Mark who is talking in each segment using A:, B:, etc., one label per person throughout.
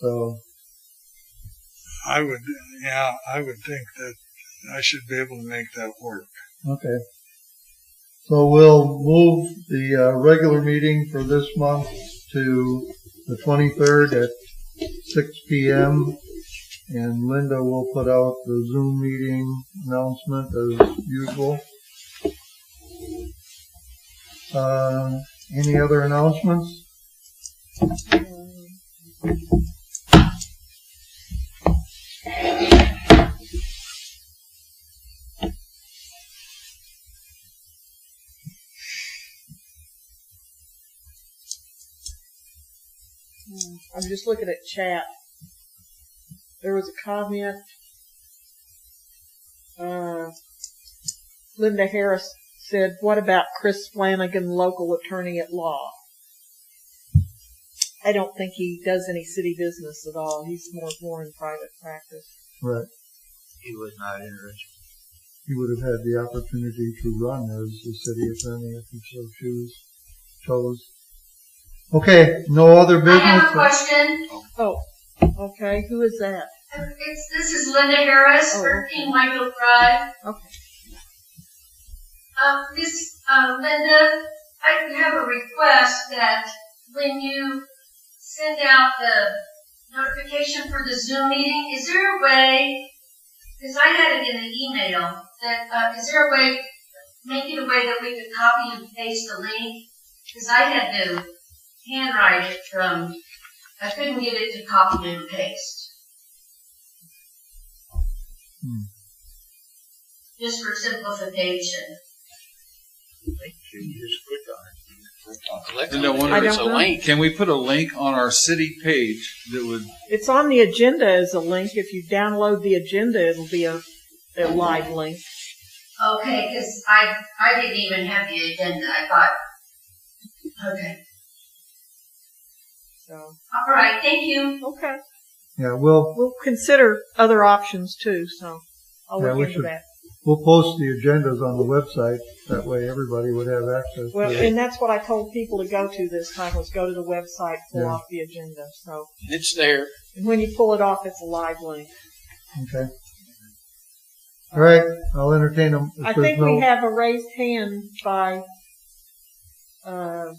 A: So
B: I would, yeah, I would think that I should be able to make that work.
A: Okay. So we'll move the uh, regular meeting for this month to the 23rd at 6 PM. And Linda will put out the Zoom meeting announcement as usual. Uh, Any other announcements?
C: Hmm, I'm just looking at chat. There was a comment. Uh, Linda Harris said, "What about Chris Flanagan, local attorney at law?" I don't think he does any city business at all. He's more more in private practice.
A: Right.
D: He was not interested.
A: He would have had the opportunity to run as the city attorney if he so choose, chose. Okay, no other
E: I
A: business?
E: have a question.
C: Oh, okay. Who is that?
E: It's, this is Linda Harris,
C: Oh, okay.
E: 13 Michael Drive.
C: Okay.
E: Um, this, uh, Linda, I have a request that when you send out the notification for the Zoom meeting, is there a way, because I had it in an email, that, uh, is there a way, make it a way that we could copy and paste the link? Because I had to handwrite it from, I couldn't get it to copy and paste. just for simplification.
D: You just click on it.
F: And I wonder
C: I
F: if it's a
C: don't know.
F: link.
G: Can we put a link on our city page that would,
C: It's on the agenda as a link. If you download the agenda, it'll be a, a live link.
E: Okay, because I, I didn't even have the agenda, I thought, okay,
C: So
E: all right, thank you.
C: okay.
A: Yeah, we'll,
C: we'll consider other options too, so I'll
A: Yeah, we
C: look into
A: should-
C: that.
A: we'll post the agendas on the website. That way everybody would have access
C: Well,
A: to it.
C: and that's what I told people to go to this time, was go to the website, pull
A: Yeah.
C: off the agenda, so.
F: It's there.
C: And when you pull it off, it's a live link.
A: Okay. All right, I'll entertain them.
C: I think we have a raised hand by, uh,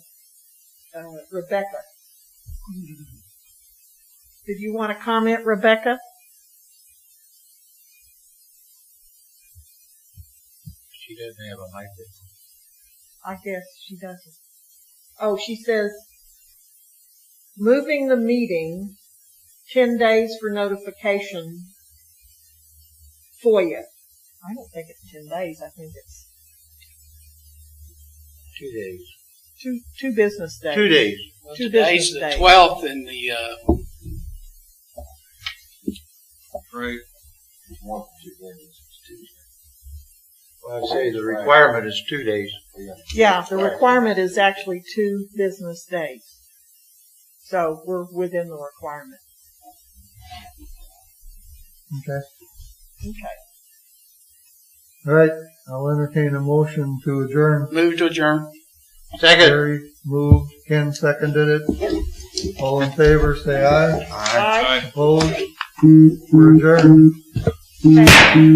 C: uh, Rebecca. Did you want to comment, Rebecca?
D: She doesn't have a microphone.
C: I guess she doesn't. Oh, she says, moving the meeting ten days for notification FOIA. I don't think it's ten days. I think it's
D: Two days.
C: two two business days.
D: Two days.
F: Well,
C: Two
F: Today's
C: business
F: the
C: days.
F: twelfth and the, uh,
G: right?
D: Well, I'd say the requirement is two days.
C: Yeah, the requirement is actually two business days. So we're within the requirement.
A: Okay.
C: Okay.
A: All right, I'll entertain a motion to adjourn.
F: move to adjourn.
D: Second.
A: Gary moved, Ken seconded it. All in favor, say aye.
D: Aye.
C: Bye.
A: Opposed? We're adjourned.